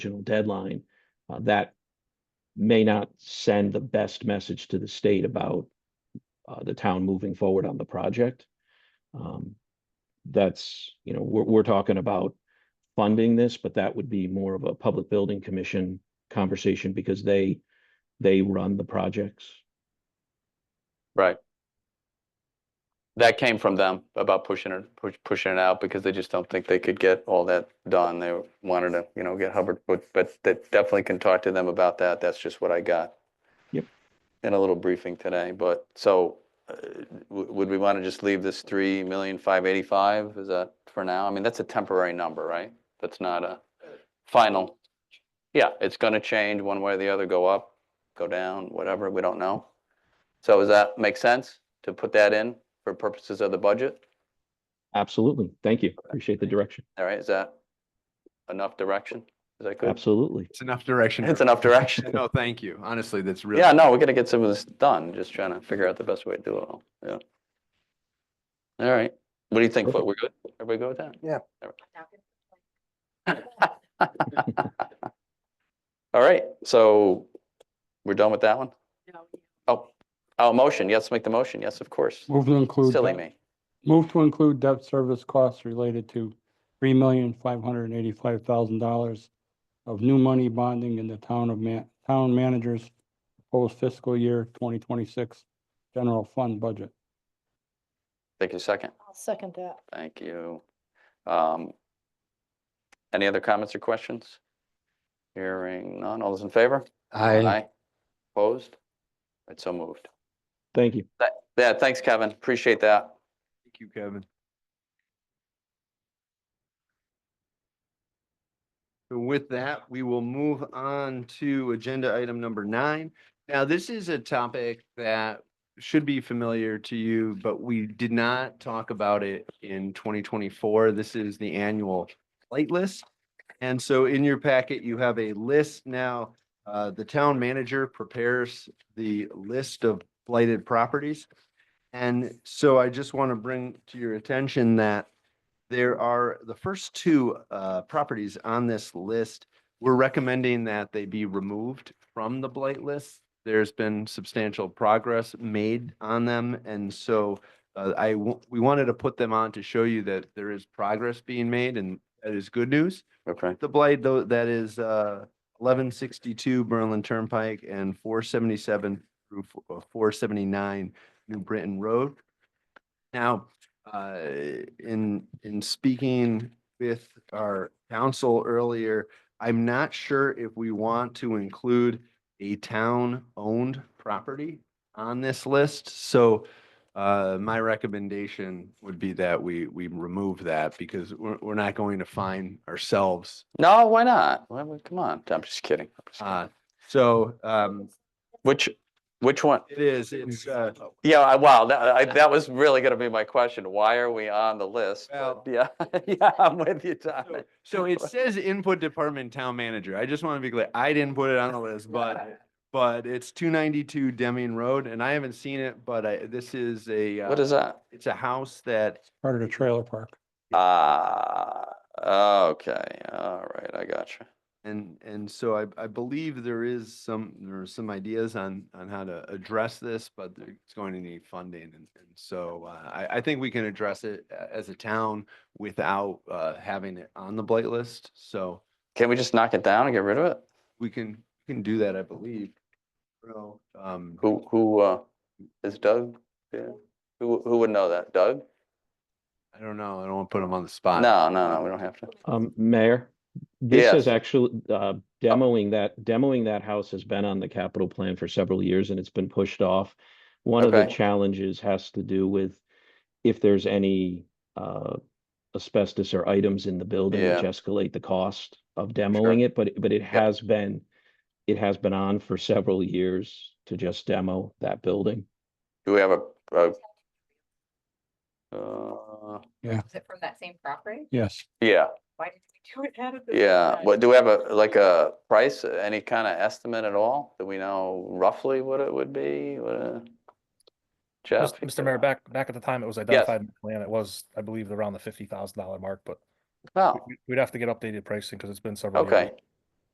original deadline, uh, that may not send the best message to the state about uh, the town moving forward on the project. Um, that's, you know, we're, we're talking about funding this, but that would be more of a public building commission conversation because they, they run the projects. Right. That came from them about pushing it, push, pushing it out because they just don't think they could get all that done. They wanted to, you know, get Hubbard, but, but that definitely can talk to them about that. That's just what I got. Yep. In a little briefing today, but so uh, w- would we want to just leave this three million five eighty-five? Is that for now? I mean, that's a temporary number, right? That's not a final. Yeah, it's going to change one way or the other, go up, go down, whatever, we don't know. So does that make sense to put that in for purposes of the budget? Absolutely. Thank you. Appreciate the direction. All right, is that enough direction? Is that good? Absolutely. It's enough direction. It's for- enough direction. No, thank you. Honestly, that's really. Yeah, no, we're gonna get some of this done, just trying to figure out the best way to do it all, yeah. All right, what do you think? Fo- We're good? Everybody go with that? Yeah. All right, so we're done with that one? No, Oh, oh, motion, yes, make the motion, yes, of course. Move to include, Silly debt- me. move to include debt service costs related to three million, five hundred and eighty-five thousand dollars of new money bonding in the town of man, town manager's proposed fiscal year twenty twenty-six general fund budget. Take a second. I'll second that. Thank you. Um, Any other comments or questions? Hearing none. All those in favor? Aye. Opposed? It's so moved. Thank you. That, yeah, thanks, Kevin. Appreciate that. Thank you, Kevin. So With that, we will move on to agenda item number nine. Now, this is a topic that should be familiar to you, but we did not talk about it in twenty twenty-four. This is the annual light list. And so in your packet, you have a list now. Uh, the town manager prepares the list of blighted properties. And so I just want to bring to your attention that there are, the first two uh, properties on this list, we're recommending that they be removed from the blight list. There's been substantial progress made on them, and so uh, I, w- we wanted to put them on to show you that there is progress being made, and that is good news. Okay. The blight, though, that is uh, eleven sixty-two Berlin Turnpike and four seventy-seven through uh, four seventy-nine New Britain Road. Now, uh, in, in speaking with our council earlier, I'm not sure if we want to include a town-owned property on this list. So uh, my recommendation would be that we, we remove that because we're, we're not going to find ourselves No, why not? Why would- Come on, I'm just kidding. I'm just kidding. uh, so, um, Which, which one? it is, it's, uh, Yeah, I- wow, that, I, that was really gonna be my question. Why are we on the list? But Well- Yeah, yeah, I'm with you, Tom. so- so it says input department town manager. I just want to be clear. I didn't put it on the list, but, but it's two ninety-two Deming Road and I haven't seen it, but I, this is a, What uh, is that? it's a house that Part of the trailer park. Ah, okay, all right, I got you. And, and so I, I believe there is some, there are some ideas on, on how to address this, but there- it's going to need funding. And, and so uh, I, I think we can address it a- as a town without, uh, having it on the blight list. So Can we just knock it down and get rid of it? we can, we can do that, I believe. So, um, Who, who, uh, is Doug? there? Who, who would know that? Doug? I don't know. I don't want to put him on the spot. No, no, no, we don't have to. Um, Mayor, this Yes. is actually, uh, demoing that, demoing that house has been on the capital plan for several years and it's been pushed off. One of the Okay. challenges has to do with if there's any, uh, asbestos or items in the building which Yeah. escalate the cost of demoing it, but, it- but it has been, it has been on for several years to just demo that building. Do we have a, a? Uh, Is it from that same property? Yes, yeah, Why did we do it out of the? yeah. What, do we have a, like a price, any kind of estimate at all? Do we know roughly what it would be? What, uh, Jeff? Mr. Mr. Mayor, back, back at the time, it was identified in the plan. It was, I believe, around the fifty thousand dollar mark, but Wow, we- we'd have to get updated pricing because it's been several years. Oh. okay.